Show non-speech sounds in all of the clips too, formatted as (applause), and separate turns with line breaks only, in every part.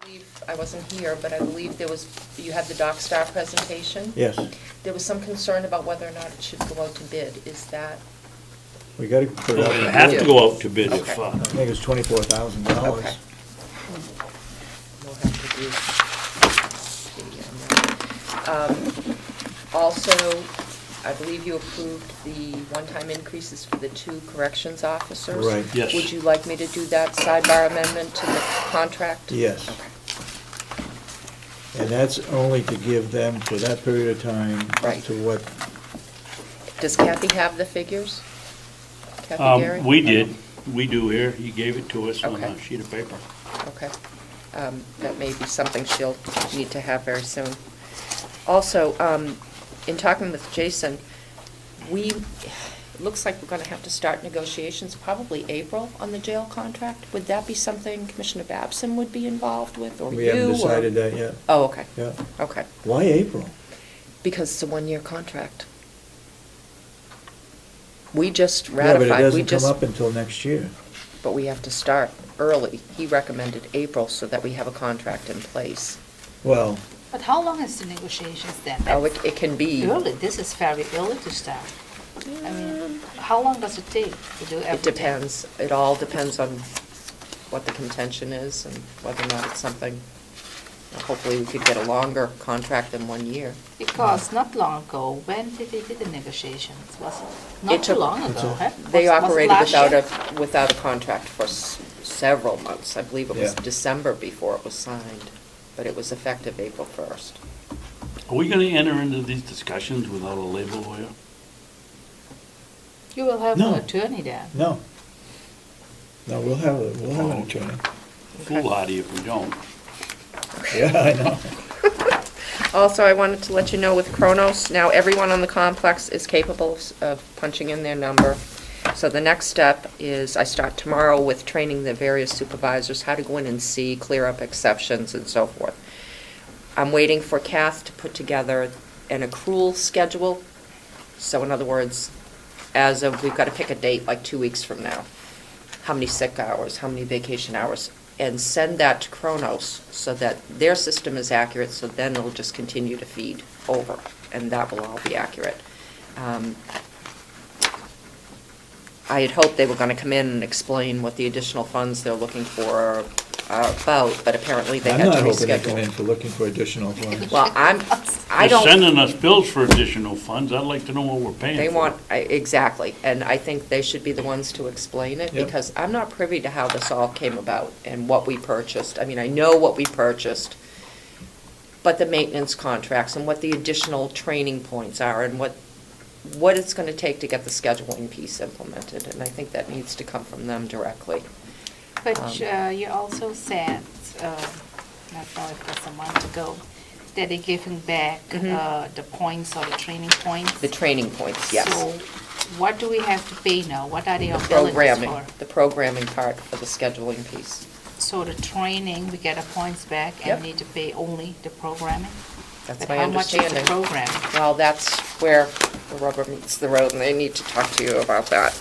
believe- I wasn't here, but I believe there was, you had the Doc Star presentation.
Yes,
There was some concern about whether or not it should go out to bid. Is that,
we gotta put it
Well,
out.
They
there.
have to go out to bid if,
Okay.
uh,
I think it's twenty-four thousand dollars.
Okay. we'll have to do the, um, um, Also, I believe you approved the one-time increases for the two corrections officers.
Right.
Yes.
Would you like me to do that sidebar amendment to the contract?
Yes.
Okay.
And that's only to give them for that period of time up
Right.
to what,
Does Kathy have the figures? Kathy Gary?
um, we did, we do here, he gave it to us on a
Okay.
sheet of paper.
Okay. Um, That may be something she'll need to have very soon. Also, um, in talking with Jason, we, it looks like we're going to have to start negotiations probably April on the jail contract. Would that be something Commissioner Babson would be involved with, or you? uh,
we haven't
or-
decided that yet.
Oh, okay,
Yeah.
okay.
Why April?
Because it's a one-year contract. We just
Yeah, but it
ratified, we
doesn't come
just,
up until next year.
but we have to start early. He recommended April so that we have a contract in place.
Well,
But how long is the negotiations then?
Oh, it, it can be.
Early, this is very early to start. I mean, how long does it take to do everything?
It depends. It all depends on what the contention is and whether or not it's something, hopefully we could get a longer contract than one year.
Because not long ago, when did they did the negotiations? Was it
It
not too
took-
long
It's
ago,
a-
huh?
They
Was- was it
operated
last
without
year?
a, without a contract for s- several months. I believe it was
Yeah.
December before it was signed, but it was effective April 1st.
Are we gonna enter into these discussions without a labor lawyer?
You will have
No.
an attorney then.
no. No, we'll have, a- we'll have an attorney.
Foolhardy if we don't.
Yeah, I
(laughs)
know.
Also, I wanted to let you know with Kronos, now everyone on the complex is capable s- of punching in their number. So the next step is, I start tomorrow with training the various supervisors how to go in and see, clear up exceptions and so forth. I'm waiting for Kath to put together an accrual schedule. So in other words, as of, we've got to pick a date like two weeks from now. How many sick hours, how many vacation hours, and send that to Kronos so that their system is accurate, so then it'll just continue to feed over, and that will all be accurate. Um, I had hoped they were going to come in and explain what the additional funds they're looking for are about, but apparently they
I'm
had to
not
reschedule.
hoping they come in for looking for additional funds.
(laughs)
Well, I'm, I
They're
don't,
sending us bills for additional funds, I'd like to know what we're paying for.
they want, I- exactly, and I think they should be the ones to explain it,
Yep.
because I'm not privy to how this all came about and what we purchased. I mean, I know what we purchased, but the maintenance contracts and what the additional training points are and what, what it's gonna take to get the scheduling piece implemented, and I think that needs to come from them directly.
But
Um.
uh, you also said, uh, not know if it was a month ago, that they're giving back
Mhm.
uh, the points or the training points.
The training points, yes.
So what do we have to pay now? What are they
The
billing
programming,
for?
the programming part of the scheduling piece.
So the training, we get our points back
Yep.
and need to pay only the programming?
That's
But
my
how much
understanding.
is the programming?
Well, that's where the rubber meets the road, and they need to talk to you about that.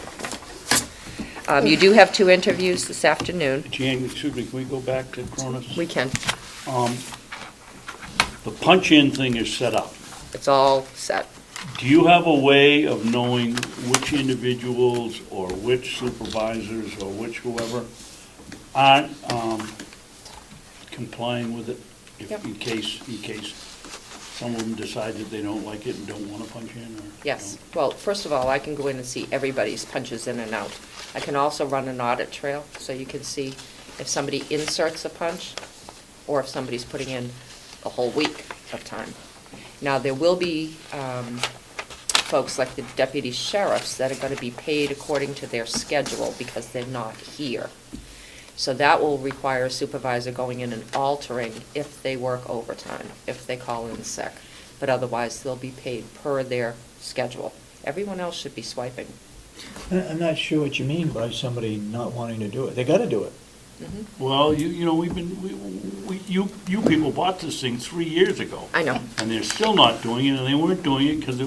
Um, You do have two interviews this afternoon.
Jan, excuse me, can we go back to Cronus?
We can,
Um, the punch-in thing is set up.
it's all set.
Do you have a way of knowing which individuals or which supervisors or which whoever aren't um, complying with it? if-
Yep.
In case, in case some of them decide that they don't like it and don't want to punch in or?
Yes. Well, first of all, I can go in and see everybody's punches in and out. I can also run an audit trail, so you can see if somebody inserts a punch or if somebody's putting in a whole week of time. Now, there will be um, folks like the deputy sheriffs that are going to be paid according to their schedule because they're not here. So that will require a supervisor going in and altering if they work overtime, if they call in sick. But otherwise, they'll be paid per their schedule. Everyone else should be swiping.
I- I'm not sure what you mean by somebody not wanting to do it. They gotta do it.
Well, you, you know, we've been, we, we, you, you people bought this thing three years ago.
I know.
And they're still not doing it, and they weren't doing it because